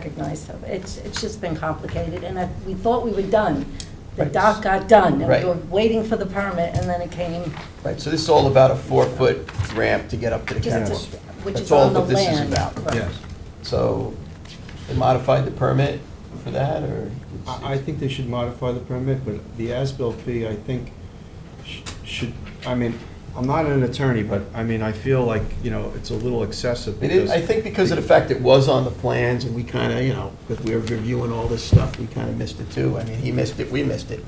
recognized of. It's, it's just been complicated, and I, we thought we were done. The Right. dock got done, and Right. we were waiting for the permit, and then it came, Right, so this is all about a four-foot ramp to get up to the just, catwalk. just- which That's is all on the that land. this is about. Right. Yes. So they modified the permit for that, or? I, I think they should modify the permit, but the as-built fee, I think, sh- should, I mean, I'm not an attorney, but, I mean, I feel like, you know, it's a little excessive It is, because... I think because of the fact it was on the plans and we kind of, you know, because we were reviewing all this stuff, we kind of missed it too. I mean, he missed it, we missed it.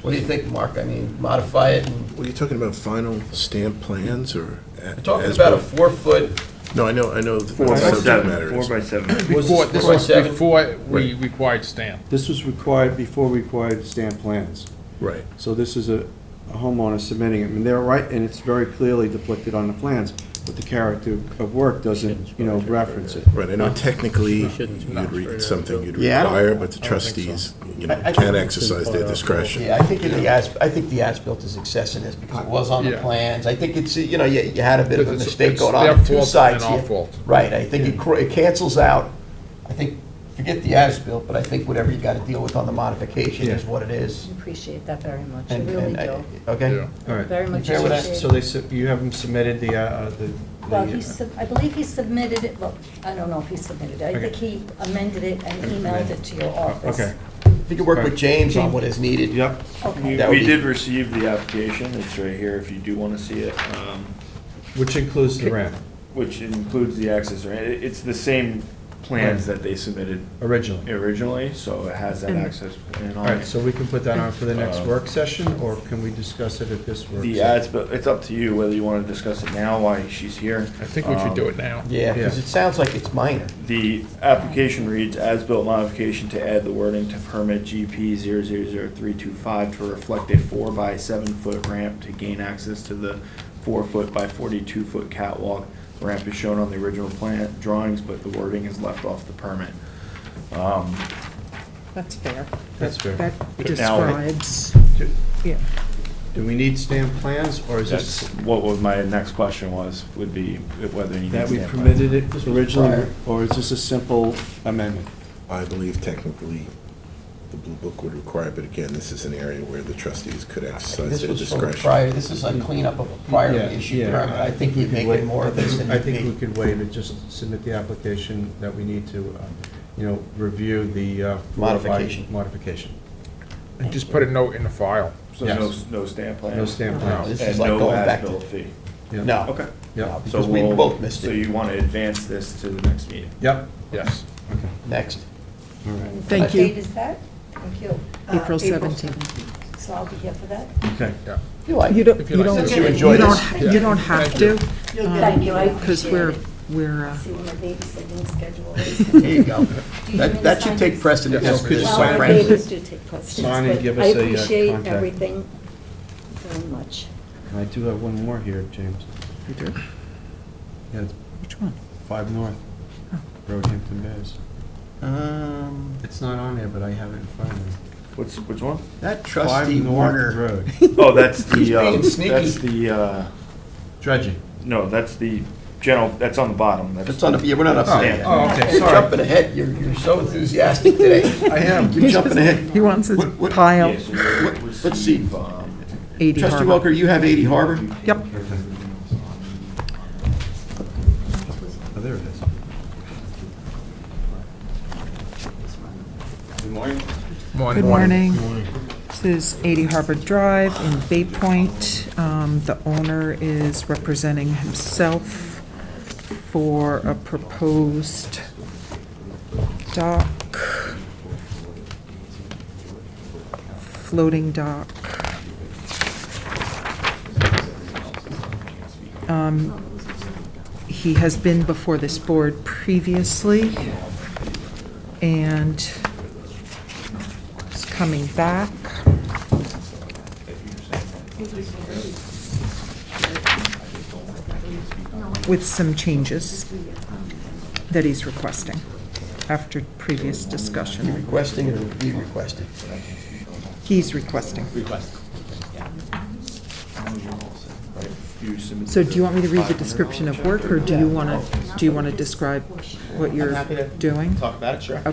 What do you think, Mark? I mean, modify it and, Were you talking about final stamp plans or? a- we're talking as- about a four-foot, No, I know, I know the- by what the subject Seven, matter four is. by seven. Was Before, this- this Right. was before we required stamp. This was required before required stamp plans. Right. So this is a a homeowner submitting it, and they're right, and it's very clearly depicted on the plans, but the character of work doesn't, you know, reference it. Right, I know technically, you'd re- it's something you'd Yeah, I don't- require, but the I don't think so. trustees, you I- I know, think can it's exercise been their brought up. discretion. yeah, I think in the as, I think the as-built is excessive in this because it was on the Yeah. plans. I think it's, you know, you, you had a bit of a Because it's- mistake it's going on their on two fault sides and our here. fault. Right, I think it cr- it cancels out, I think, forget the as-built, but I think whatever you got to deal with on the modification is Yeah. what it is. Appreciate that very much, I And- really and I- do. Okay? Yeah. All right. Very much fair with that? appreciate So they, sub- you have them submitted the, uh, uh, the... Well, the, he, uh, sub- I believe he submitted it, well, I don't know if he submitted it. I Okay. think he amended it and emailed it to your office. Okay, If you could work with James on what is needed. yep. Okay. We That would we be- did receive the application, it's right here if you do want to see it, um, Which includes the ramp, which includes the access, right? It- It's the same plans that they submitted originally. originally, so it has that access plan All on right, it. so we can put that on for the next Uh, work session, or can we discuss it at this work The session? ads, but it's up to you whether you want to discuss it now, why she's here. I think we should do Um, it now. Yeah, because Yeah. it sounds like it's minor. The application reads, as-built modification to add the wording to permit GP 000325 to reflect a four by seven-foot ramp to gain access to the four-foot by 42-foot catwalk. The Ramp is shown on the original plan drawings, but the wording is left off the permit. Um, That's fair. uh, That's fair. That But now- describes, Do- yeah. Do we need stamp plans, or is That's this, what was my next question was, would be whether you need that we stamp plans. permitted it originally, prior. or is this a simple amendment? I believe technically the Blue Book would require, but again, this is an area where the trustees could exercise This their was from a discretion. prior, this is a cleanup of a prior Yeah, issue yeah. permit. I think We you'd could make wait- it more of this than I it think we be. could wait and just submit the application that we need to, uh, you know, review the. uh, four by- Modification. Modification. And just put a note in the file. So Yes. no, no stamp plan? No stamp No, plans. This is And like no going back as-built to, fee? Yeah. no. Okay. Yeah. No, So Because we we'll- both missed So it. you want to advance this to the next meeting? Yep. Yes. Next. All right. Thank What date you. is that? Thank you. Uh, April Uh-huh. 17th. So I'll be here for that. Okay. You like You it. don't, If you you like don't, this. you You enjoy don't, this? Yeah. you don't have Thank to. um, you. You'll get it. You like Because it. we're, we're, uh, See what my babysitting schedule is. There you you go. want me That, to that should sign take this? precedence Yes, over could you this, Well, sign quite our it? frankly. babies do take precedence, Sign and but give I us a, uh, appreciate contact. everything very much. And I do have one more here, James. you do? Yeah, it's Which one? Five North, Roehampton Bays. Um, It's not on there, but I have it in front of me. What's, which one? That Five trusty North Warner, Road. Oh, that's He's the, uh, being sneaky. that's the, uh, Dredging. no, that's the general, that's on the bottom. that's on the, yeah, we're not up Oh, there. yet. oh, okay, You're sorry. jumping ahead, you're, you're so enthusiastic today. I am. You're jumping ahead. He wants his What- what- pile Yeah, so you What- let's receive, see. um, 80 Trustee Harbor. Welker, you have 80 Harbor? Yep. Oh, there it is. Good morning. This is 80 Harbor Drive in Bay Point. Um, The owner is representing himself for a proposed dock, floating dock. Um, He has been before this board previously, and is coming back. With some changes that he's requesting after previous discussion. Requesting or we requested? He's requesting. you submit. So do you want me to read the $500 description of check work, or do Yeah. you want to, do you want to describe what I'm you're happy to doing? Talk about it, sure.